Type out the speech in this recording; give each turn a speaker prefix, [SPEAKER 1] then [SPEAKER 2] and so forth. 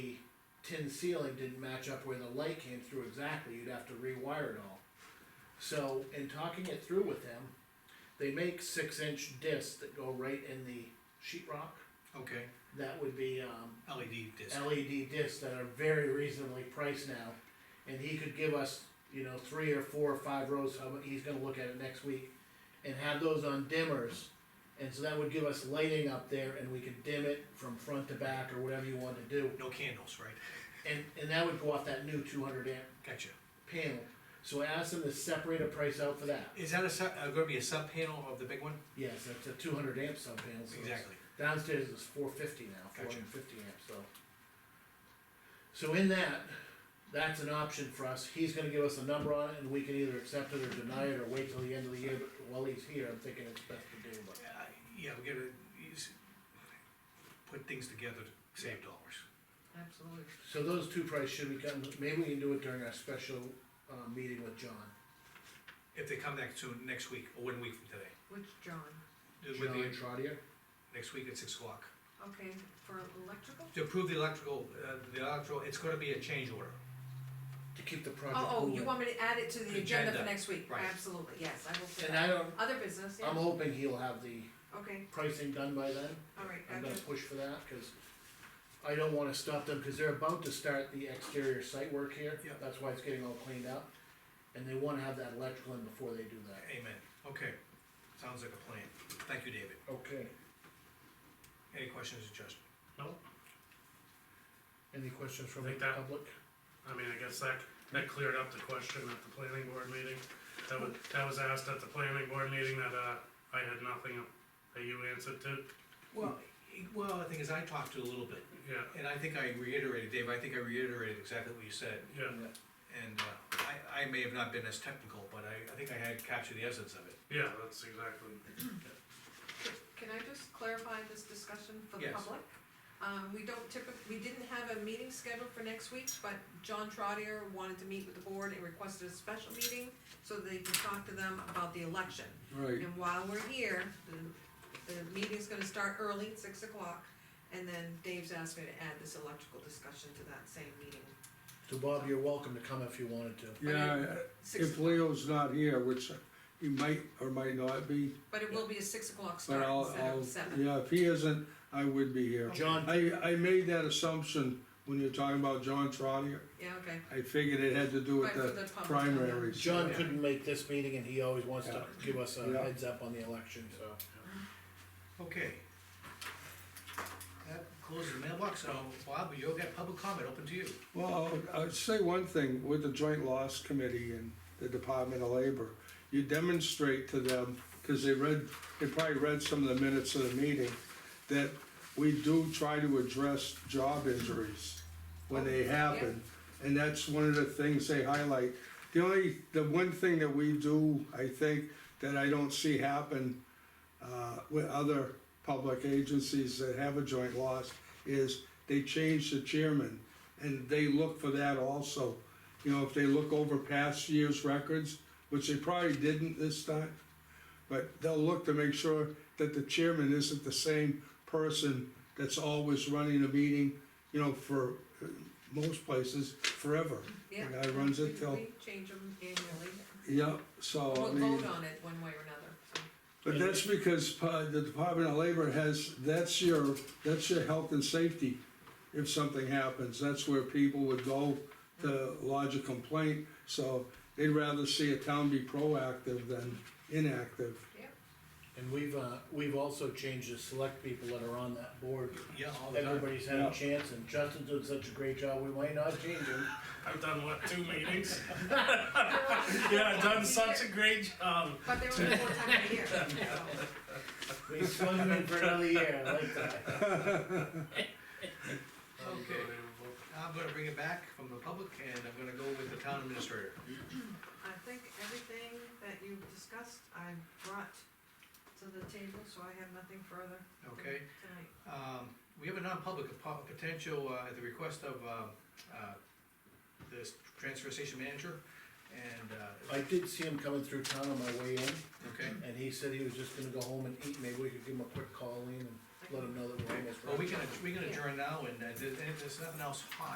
[SPEAKER 1] tin ceiling didn't match up where the light came through exactly, you'd have to rewire it all. So, in talking it through with them, they make six inch discs that go right in the sheet rock.
[SPEAKER 2] okay,
[SPEAKER 1] That would be, um,
[SPEAKER 2] LED disc,
[SPEAKER 1] LED discs that are very reasonably priced now. And he could give us, you know, three or four or five rows, how mu- he's gonna look at it next week, and have those on dimmers. And so that would give us lighting up there and we could dim it from front to back or whatever you want to do.
[SPEAKER 2] no candles, right?
[SPEAKER 1] And, and that would go off that new two hundred amp
[SPEAKER 2] Gotcha.
[SPEAKER 1] panel. So I asked him to separate a price out for that.
[SPEAKER 2] Is that a sub, uh, gonna be a sub panel of the big one?
[SPEAKER 1] Yes, that's a two hundred amp sub panel. so it's-
[SPEAKER 2] Exactly.
[SPEAKER 1] Downstairs is four fifty now, four
[SPEAKER 2] Gotcha.
[SPEAKER 1] hundred and fifty amps, so. So in that, that's an option for us, he's gonna give us a number on it, and we can either accept it or deny it, or wait till the end of the year, but while he's here, I'm thinking it's best to do, but.
[SPEAKER 2] Uh, yeah, we gotta, use, put things together to save dollars.
[SPEAKER 3] Absolutely.
[SPEAKER 1] So those two prices should be coming, maybe we can do it during our special, uh, meeting with John.
[SPEAKER 2] If they come back soon, next week, or one week from today.
[SPEAKER 3] Which John?
[SPEAKER 2] Do it with
[SPEAKER 1] John
[SPEAKER 2] the-
[SPEAKER 1] Trotter,
[SPEAKER 2] Next week at six o'clock.
[SPEAKER 3] Okay, for electrical?
[SPEAKER 2] To approve the electrical, uh, the electrical, it's gonna be a change order.
[SPEAKER 1] to keep the project
[SPEAKER 3] Oh, oh, you
[SPEAKER 1] moving.
[SPEAKER 3] want me to add it to the agenda for
[SPEAKER 2] Agenda,
[SPEAKER 3] next week?
[SPEAKER 2] right.
[SPEAKER 3] Absolutely, yes, I will do
[SPEAKER 1] And I
[SPEAKER 3] that.
[SPEAKER 1] don't,
[SPEAKER 3] Other business,
[SPEAKER 1] I'm
[SPEAKER 3] yeah,
[SPEAKER 1] hoping he'll have the
[SPEAKER 3] okay,
[SPEAKER 1] pricing done by then.
[SPEAKER 3] all right,
[SPEAKER 1] I'm gonna
[SPEAKER 3] gotcha.
[SPEAKER 1] push for that, cause I don't wanna stop them, cause they're about to start the exterior site work here.
[SPEAKER 2] Yeah.
[SPEAKER 1] That's why it's getting all cleaned up, and they wanna have that electrical in before they do that.
[SPEAKER 2] Amen. Okay, sounds like a plan. Thank you, David.
[SPEAKER 1] Okay.
[SPEAKER 2] Any questions, Justin?
[SPEAKER 4] Well,
[SPEAKER 1] Any questions from the
[SPEAKER 4] Think that-
[SPEAKER 1] public?
[SPEAKER 4] I mean, I guess that, that cleared up the question at the planning board meeting. That was, that was asked at the planning board meeting that, uh, I had nothing that you answered to,
[SPEAKER 2] Well, well, the thing is, I talked to a little bit,
[SPEAKER 4] yeah,
[SPEAKER 2] and I think I reiterated, Dave, I think I reiterated exactly what you said.
[SPEAKER 4] yeah.
[SPEAKER 2] And uh, I, I may have not been as technical, but I, I think I had captured the essence of it.
[SPEAKER 4] Yeah, that's exactly,
[SPEAKER 3] Can I just clarify this discussion for the
[SPEAKER 2] Yes.
[SPEAKER 3] public? Um, we don't typically, we didn't have a meeting scheduled for next week, but John Trotter wanted to meet with the board and requested a special meeting so they could talk to them about the election.
[SPEAKER 5] Right,
[SPEAKER 3] And while we're here, the, the meeting's gonna start early, at six o'clock, and then Dave's asked me to add this electrical discussion to that same meeting.
[SPEAKER 1] So Bob, you're welcome to come if you wanted to.
[SPEAKER 5] yeah,
[SPEAKER 3] Six,
[SPEAKER 5] if Leo's not here, which he might or might not be,
[SPEAKER 3] but it will be a six o'clock
[SPEAKER 5] but
[SPEAKER 3] start
[SPEAKER 5] I'll,
[SPEAKER 3] instead
[SPEAKER 5] I'll,
[SPEAKER 3] of seven.
[SPEAKER 5] yeah, if he isn't, I would be here.
[SPEAKER 1] John,
[SPEAKER 5] I, I made that assumption when you're talking about John Trotter,
[SPEAKER 3] Yeah, okay,
[SPEAKER 5] I figured it had to do with
[SPEAKER 3] Right, for
[SPEAKER 5] the
[SPEAKER 3] the public,
[SPEAKER 5] primaries.
[SPEAKER 1] John couldn't make this meeting, and he always wants to give us a
[SPEAKER 5] Yeah.
[SPEAKER 1] heads up on the election, so.
[SPEAKER 2] Okay. That closes the mailbox, so Bob, you'll get public comment, open to you.
[SPEAKER 5] Well, I'll, I'll say one thing, with the joint loss committee and the Department of Labor, you demonstrate to them, cause they read, they probably read some of the minutes of the meeting, that we do try to address job injuries when they happen. And that's one of the things they highlight. The only, the one thing that we do, I think, that I don't see happen, uh, with other public agencies that have a joint loss, is they change the chairman and they look for that also. You know, if they look over past year's records, which they probably didn't this time, but they'll look to make sure that the chairman isn't the same person that's always running a meeting, you know, for uh, most places, forever.
[SPEAKER 3] yeah.
[SPEAKER 5] The guy runs it
[SPEAKER 3] We-
[SPEAKER 5] till,
[SPEAKER 3] We change them annually,
[SPEAKER 5] yeah, so I
[SPEAKER 3] we'll
[SPEAKER 5] mean.
[SPEAKER 3] vote on it one way or another, so.
[SPEAKER 5] But that's because uh, the Department of Labor has, that's your, that's your health and safety. If something happens, that's where people would go to lodge a complaint. So they'd rather see a town be proactive than inactive.
[SPEAKER 1] And we've, uh, we've also changed the select people that are on that board.
[SPEAKER 2] Yeah, all the time.
[SPEAKER 1] Everybody's had a
[SPEAKER 5] Yeah.
[SPEAKER 1] chance, and Justin's doing such a great job, we might not change him.
[SPEAKER 4] I've done what, two meetings? Yeah, I've done such a great job.
[SPEAKER 3] But they're only four times a year, so,
[SPEAKER 1] We swung him in for another year, I like that.
[SPEAKER 2] Okay.
[SPEAKER 4] Unbelievable.
[SPEAKER 2] I'm gonna bring it back from the public, and I'm gonna go with the town administrator.
[SPEAKER 3] I think everything that you've discussed, I brought to the table, so I have nothing further
[SPEAKER 2] Okay,
[SPEAKER 3] tonight.
[SPEAKER 2] um, we have a non-public, a po- potential, uh, at the request of, um, uh, this transfer station manager, and, uh,
[SPEAKER 1] I did see him coming through town on my way in,
[SPEAKER 2] okay?
[SPEAKER 1] and he said he was just gonna go home and eat, maybe we could give him a quick call in and let him know that we're almost.
[SPEAKER 2] Well, we
[SPEAKER 1] ready.
[SPEAKER 2] can, we can adjourn now, and, uh, there's, there's nothing else hot.